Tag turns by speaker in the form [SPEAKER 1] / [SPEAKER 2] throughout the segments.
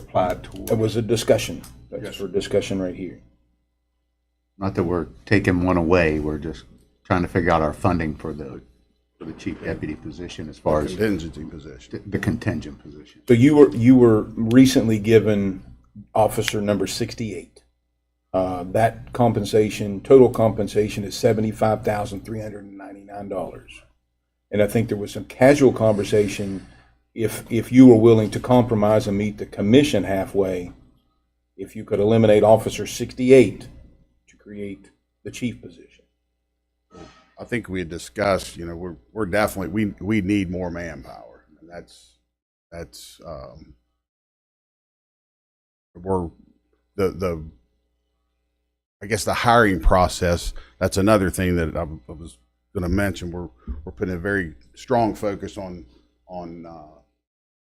[SPEAKER 1] applied toward.
[SPEAKER 2] It was a discussion. That's for discussion right here.
[SPEAKER 3] Not that we're taking one away, we're just trying to figure out our funding for the, for the chief deputy position as far as
[SPEAKER 4] Contingency position.
[SPEAKER 3] the contingent position.
[SPEAKER 2] So you were, you were recently given officer number 68. Uh, That compensation, total compensation is $75,399. And I think there was some casual conversation, if, if you were willing to compromise and meet the commission halfway, if you could eliminate officer 68 to create the chief position.
[SPEAKER 4] I think we had discussed, you know, we're, we're definitely, we, we need more manpower. And that's, that's, um, we're, the, the, I guess the hiring process, that's another thing that I w- I was going to mention. We're, we're putting a very strong focus on, on, uh,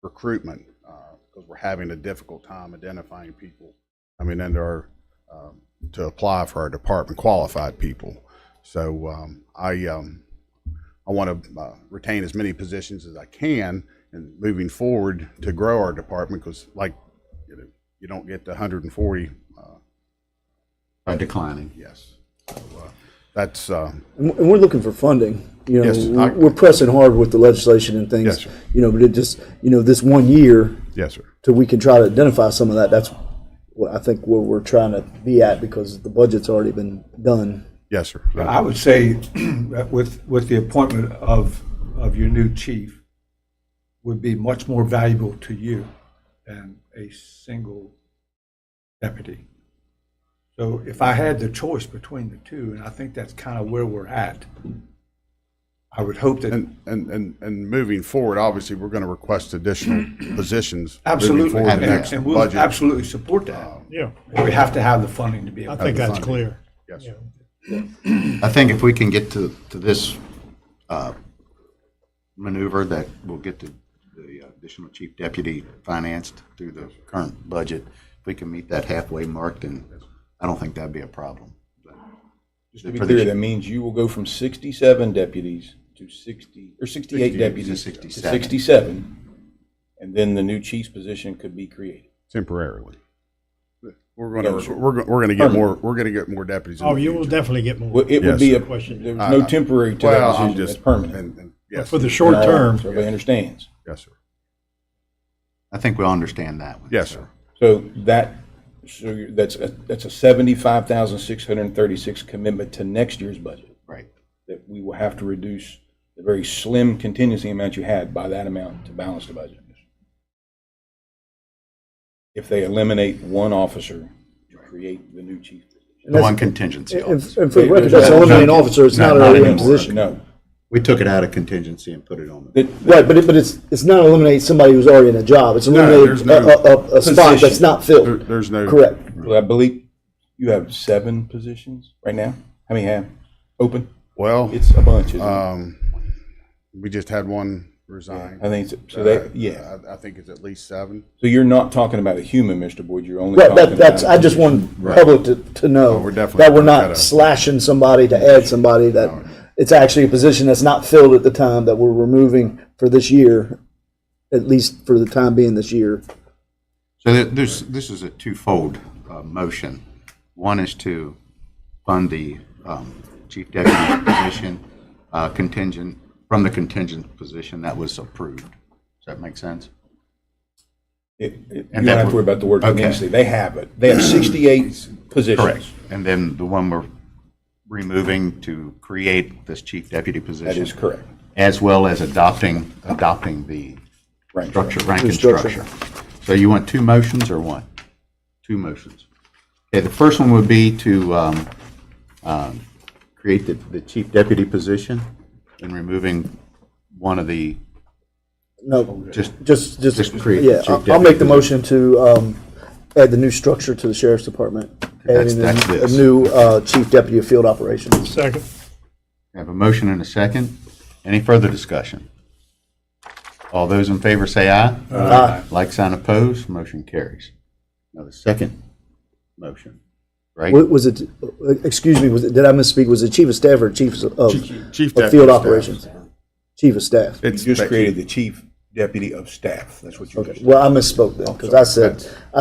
[SPEAKER 4] recruitment, uh, because we're having a difficult time identifying people. I mean, under our, um, to apply for our department qualified people. So um, I, um, I want to uh, retain as many positions as I can and moving forward to grow our department because like, you know, you don't get the 140, uh,
[SPEAKER 3] By declining.
[SPEAKER 4] yes. So, uh, That's, uh,
[SPEAKER 5] And and we're looking for funding, you know,
[SPEAKER 4] Yes, I-
[SPEAKER 5] we're- we're pressing hard with the legislation
[SPEAKER 4] Yes,
[SPEAKER 5] and things.
[SPEAKER 4] sir.
[SPEAKER 5] You know, but it just, you know, this one year,
[SPEAKER 4] yes, sir.
[SPEAKER 5] till we can try to identify some of that, that's what I think where we're trying to be at because the budget's already been done.
[SPEAKER 4] Yes, sir.
[SPEAKER 1] But I would say that with, with the appointment of, of your new chief would be much more valuable to you than a single deputy. So if I had the choice between the two, and I think that's kind of where we're at, I would hope that,
[SPEAKER 4] And, and, and, and moving forward, obviously, we're going to request additional positions. moving
[SPEAKER 1] absolutely,
[SPEAKER 4] forward in
[SPEAKER 1] and
[SPEAKER 4] the next
[SPEAKER 1] and we'll
[SPEAKER 4] budget. Um,
[SPEAKER 1] absolutely support that.
[SPEAKER 6] Yeah,
[SPEAKER 1] We have to have the funding to be able
[SPEAKER 6] I
[SPEAKER 1] to.
[SPEAKER 6] think that's
[SPEAKER 4] funding.
[SPEAKER 6] clear.
[SPEAKER 4] Yes,
[SPEAKER 6] Yeah.
[SPEAKER 4] sir.
[SPEAKER 3] I think if we can get to, to this uh, maneuver, that we'll get the the additional chief deputy financed through the current budget. If we can meet that halfway mark, then I don't think that'd be a problem.
[SPEAKER 2] Just to be clear, that means you will go from 67 deputies to 60, or 68
[SPEAKER 3] to
[SPEAKER 2] deputies to
[SPEAKER 3] 67.
[SPEAKER 2] 67, and then the new chief's position could be created.
[SPEAKER 4] Temporarily. We're
[SPEAKER 2] Yes,
[SPEAKER 4] going to,
[SPEAKER 2] sir.
[SPEAKER 4] we're, go- we're going to get more, we're going to get more deputies. in
[SPEAKER 6] Oh,
[SPEAKER 4] the
[SPEAKER 6] you will
[SPEAKER 4] future.
[SPEAKER 6] definitely get more.
[SPEAKER 2] Well, it would be, a
[SPEAKER 4] Yes,
[SPEAKER 2] there's
[SPEAKER 6] Question.
[SPEAKER 2] no temporary to
[SPEAKER 4] Well,
[SPEAKER 2] that
[SPEAKER 4] I'm
[SPEAKER 2] decision, it's
[SPEAKER 4] just.
[SPEAKER 2] permanent.
[SPEAKER 4] and- and-
[SPEAKER 6] But
[SPEAKER 4] Yes,
[SPEAKER 6] For the
[SPEAKER 4] sir.
[SPEAKER 6] short term,
[SPEAKER 2] So everybody understands.
[SPEAKER 4] Yes, sir.
[SPEAKER 3] I think we all understand that one.
[SPEAKER 4] Yes, sir.
[SPEAKER 2] So that, so you're- that's, a that's a 75,636 commitment to next year's budget,
[SPEAKER 3] Right.
[SPEAKER 2] that we will have to reduce the very slim contingency amount you had by that amount to balance the budget. If they eliminate one officer to create the new chief.
[SPEAKER 5] And
[SPEAKER 3] No, on
[SPEAKER 5] that's-
[SPEAKER 3] contingency.
[SPEAKER 5] And
[SPEAKER 3] officer.
[SPEAKER 5] and for the record, that's
[SPEAKER 2] Not-
[SPEAKER 5] eliminating officer, it's not
[SPEAKER 3] not-
[SPEAKER 5] an
[SPEAKER 3] not
[SPEAKER 5] eliminating
[SPEAKER 3] anymore.
[SPEAKER 5] position.
[SPEAKER 2] No.
[SPEAKER 3] We took it out of contingency and put it on. the-
[SPEAKER 2] That-
[SPEAKER 5] Right, but it, but it's, it's not eliminating somebody who's already in a job, it's
[SPEAKER 4] there's
[SPEAKER 5] eliminating a,
[SPEAKER 4] no
[SPEAKER 5] a, a- a spot that's
[SPEAKER 2] position.
[SPEAKER 5] not
[SPEAKER 4] There-
[SPEAKER 5] filled.
[SPEAKER 4] There's no.
[SPEAKER 5] Correct.
[SPEAKER 2] Well, I believe you have seven positions right now. How many have open?
[SPEAKER 4] Well,
[SPEAKER 2] It's a bunch, isn't
[SPEAKER 5] Uh,
[SPEAKER 2] it?
[SPEAKER 4] um, we just had one resign.
[SPEAKER 2] I think, it's- so they, yeah.
[SPEAKER 4] I, I think it's at least seven.
[SPEAKER 2] So you're not talking about a human, Mr. Boyd, you're only
[SPEAKER 5] Right,
[SPEAKER 2] talking about.
[SPEAKER 5] that, that's,
[SPEAKER 2] a
[SPEAKER 5] I just
[SPEAKER 2] position.
[SPEAKER 5] want public to, to know.
[SPEAKER 4] we're definitely
[SPEAKER 5] That we're
[SPEAKER 4] gonna cut
[SPEAKER 5] not
[SPEAKER 4] a-
[SPEAKER 5] slashing somebody to add somebody, that it's actually a position that's not filled at the time that we're removing for this year, at least for the time being this year.
[SPEAKER 3] So there- there's, this is a twofold uh, motion. One is to fund the um, chief deputy position uh, contingent, from the contingent position that was approved. Does that make sense?
[SPEAKER 2] It- it- You
[SPEAKER 3] And
[SPEAKER 2] don't
[SPEAKER 3] that
[SPEAKER 2] have to
[SPEAKER 3] would-
[SPEAKER 2] worry about the word
[SPEAKER 3] okay.
[SPEAKER 2] contingency. They have it. They have 68 positions.
[SPEAKER 3] And then the one we're removing to create this chief deputy
[SPEAKER 2] That
[SPEAKER 3] position.
[SPEAKER 2] is correct.
[SPEAKER 3] As well as adopting, adopting the
[SPEAKER 2] Right.
[SPEAKER 3] structure, rank and
[SPEAKER 5] Structure.
[SPEAKER 3] structure. So you want two motions or one? Two motions. Okay, the first one would be to um, um, create the the chief deputy position and removing one of the,
[SPEAKER 5] No,
[SPEAKER 3] just,
[SPEAKER 5] just, just,
[SPEAKER 3] Just create the
[SPEAKER 5] yeah,
[SPEAKER 3] chief
[SPEAKER 5] I'll- I'll
[SPEAKER 3] deputy
[SPEAKER 5] make the motion to, um, add the new structure to the sheriff's department.
[SPEAKER 3] That's-
[SPEAKER 5] adding
[SPEAKER 3] that's
[SPEAKER 5] a- A
[SPEAKER 3] this.
[SPEAKER 5] new, uh, chief deputy of field operations.
[SPEAKER 6] Second,
[SPEAKER 3] I have a motion and a second. Any further discussion? All those in favor say aye.
[SPEAKER 5] Aye.
[SPEAKER 3] Like sign opposed, motion carries. Now the second motion, right?
[SPEAKER 5] Wa- Was it, uh, excuse me, was it, did I misspeak? Was it chief of staff or chief of,
[SPEAKER 4] Chief
[SPEAKER 5] of
[SPEAKER 4] Deputy
[SPEAKER 5] field
[SPEAKER 4] Staff.
[SPEAKER 5] operations? Chief of staff.
[SPEAKER 2] You just created the chief deputy of staff. That's what you just
[SPEAKER 5] Well, I misspoke then, because I said,